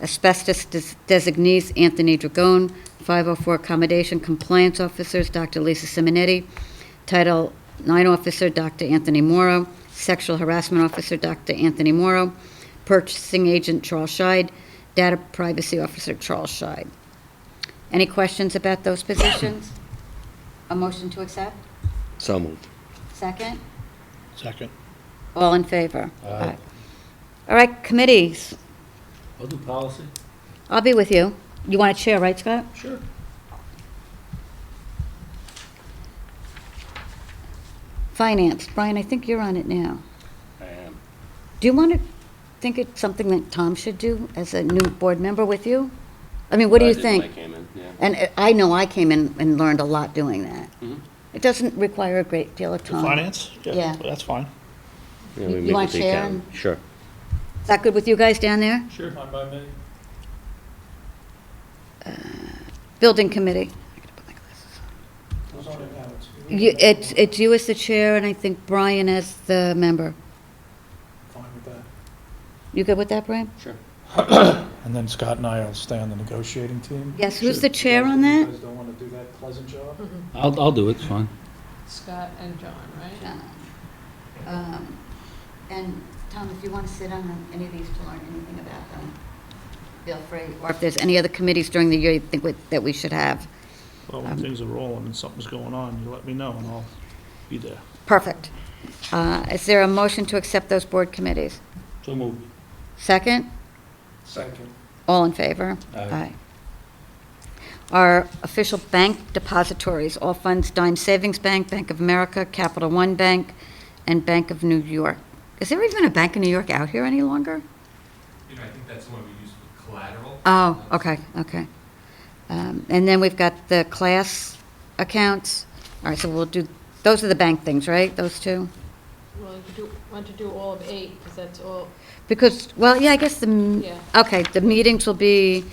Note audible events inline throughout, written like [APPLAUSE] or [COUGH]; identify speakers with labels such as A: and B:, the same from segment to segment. A: asbestos des- designees Anthony Dragone, 504 accommodation compliance officers Dr. Lisa Simonetti, Title IX officer Dr. Anthony Morrow, sexual harassment officer Dr. Anthony Morrow, purchasing agent Charles Scheid, data privacy officer Charles Scheid. Any questions about those positions? A motion to accept?
B: So moved.
A: Second?
C: Second.
A: All in favor? Aye. All right, committees,
D: I'll do policy.
A: I'll be with you. You want to chair, right, Scott?
D: Sure.
A: Finance, Brian, I think you're on it now.
D: I am.
A: Do you want to think it's something that Tom should do as a new board member with you? I mean, what do you
D: I
A: think?
D: did when I came in, yeah.
A: And uh, I know I came in and learned a lot doing that.
D: Mhm.
A: It doesn't require a great deal of
C: The
A: time.
C: finance?
A: Yeah.
C: That's fine.
B: Yeah,
A: You-
B: we
A: you
B: meet
A: want
B: with the
A: Sharon?
B: accountant. Sure.
A: Is that good with you guys down there?
D: Sure. Fine by me.
A: Building committee. You- It's, it's you as the chair, and I think Brian as the member. You good with that, Brian?
D: Sure.
C: And then Scott and I will stay on the negotiating team?
A: Yes, who's the chair on that?
C: guys don't want to do that pleasant job?
D: I'll, I'll do it, it's fine.
E: Scott and John, right?
A: Uh, Um, And Tom, if you want to sit on any of these to learn anything about them, feel free. Or if there's any other committees during the year you think we- that we should have.
C: Well,
A: Um,
C: when things are rolling and something's going on, you let me know and I'll be there.
A: Perfect. Uh, Is there a motion to accept those board committees?
D: So move.
A: Second?
C: Second.
A: All in favor?
D: Aye.
A: Our official bank depositories, all funds Dime Savings Bank, Bank of America, Capital One Bank, and Bank of New York. Is there even a Bank of New York out here any longer?
F: You know, I think that's the one we use for collateral.
A: Oh, okay, okay. Um, And then we've got the class accounts. All right, so we'll do, those are the bank things, right, those two?
E: Well, you do, want to do all of eight, because that's all,
A: Because, well, yeah, I guess the, m-
E: Yeah.
A: okay, the meetings will be,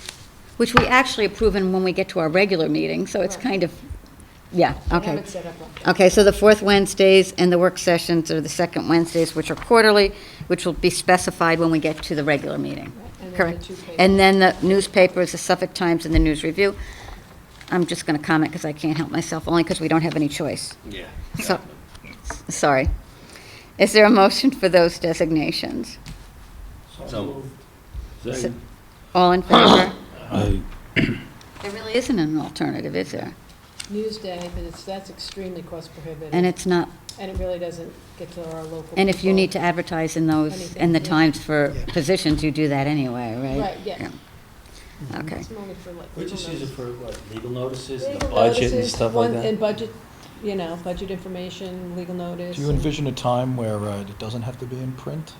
A: which we actually approve in when we get to our regular meeting, so it's
E: Right.
A: kind of, yeah,
E: I
A: okay.
E: haven't set up like that.
A: Okay, so the fourth Wednesdays and the work sessions are the second Wednesdays, which are quarterly, which will be specified when we get to the regular meeting.
E: and then the
A: Correct.
E: two papers.
A: And then the newspapers, the Suffolk Times and the News Review. I'm just going to comment because I can't help myself, only because we don't have any choice.
D: Yeah.
A: So, sorry. Is there a motion for those designations?
B: So
D: Second.
A: All in favor?
B: Aye.
A: There really isn't an alternative, is there?
E: Newsday, but it's, that's extremely cost prohibitive.
A: And it's not,
E: And it really doesn't get to our local
A: and if you
E: people.
A: need to advertise in those, in the
E: Anything, yeah.
A: Times for positions, you do that anyway, right?
E: Right, yeah.
A: Yeah. Okay.
E: It's only for like.
D: We just use it for, what, legal notices, the
E: Legal
D: budget and
E: notices,
D: stuff
E: one-
D: like that?
E: And budget, you know, budget information, legal notice.
G: Do you
E: and-
G: envision a time where uh, it doesn't have to be in print?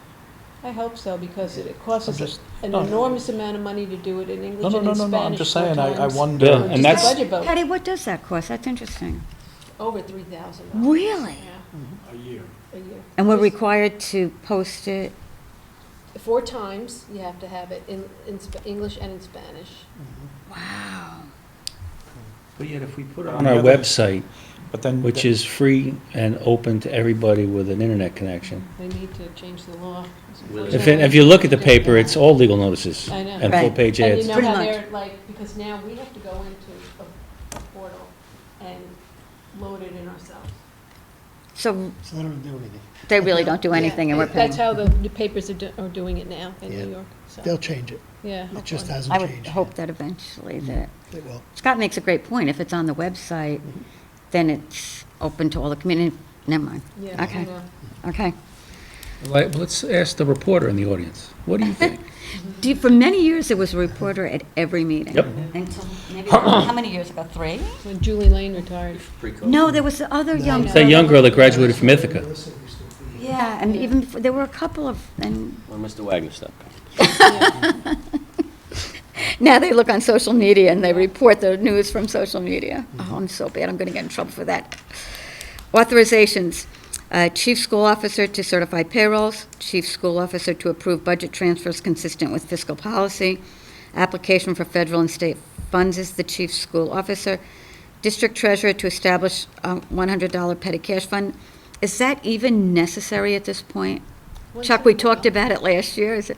E: I hope so, because it costs
G: I'm
E: us
G: just-
E: an
G: no.
E: enormous amount of money to do it in
G: No,
E: English
G: no,
E: and
G: no,
E: in Spanish
G: no, no, I'm just
E: four
G: saying, I, I
E: times.
G: wonder.
B: Yeah,
E: Just
B: and
E: the
B: that's-
E: Budget vote,
A: Patty, what does that cost? That's interesting.
E: over three thousand.
A: Really?
E: Yeah,
C: A year.
E: a year.
A: And we're
E: Just-
A: required to post it,
E: Four times, you have to have it in, in Sp- English and in Spanish.
D: But yet if we put it
B: On our website,
G: But then,
B: which is free and open to everybody with an internet connection.
E: They need to change the law. It's
D: Really?
B: If, if you look at the paper, it's all legal notices.
E: I know.
B: And
A: Right.
B: full-page
E: And you
B: ads.
E: know
A: Pretty
E: how
A: much.
E: they're like, because now we have to go into a- a portal and load it in ourselves.
A: so. they really don't do anything, and we're paying.
E: That's how the the papers are, do- are doing it now in
B: Yeah.
E: New York, so.
H: They'll change it.
E: Yeah.
H: It just
E: hopefully.
H: hasn't
A: I would
H: changed.
A: hope that eventually that,
H: It will.
A: Scott makes a great point. If it's on the website, then it's open to all the community. Never mind.
E: Yeah, I
A: Okay.
E: know.
A: Okay.
I: Like, let's ask the reporter in the audience. What
E: [LAUGHS]
I: do you think?
A: Do you- For many years, there was a reporter at every meeting.
B: Yep.
A: Until
B: [CLEARS THROAT]
A: maybe, how many years ago? Three?
E: When Julie Lane retired.
A: No, there was the other young
E: No.
B: It's that
A: girl.
B: young girl that graduated from Ithaca.
A: Yeah, and even, before- there were a couple of, and
B: Well, Mr. Wagner stuff.
A: Now they look on social media and they report the news from social media. Oh, I'm so bad, I'm going to get in trouble for that. Authorizations, Uh, chief school officer to certify payrolls, chief school officer to approve budget transfers consistent with fiscal policy, application for federal and state funds is the chief school officer, district treasurer to establish a $100 petty cash fund. Is that even necessary at this point? [LAUGHS]
E: Once
A: Chuck,
E: in a
A: we talked
E: while.
A: about it last year, is it?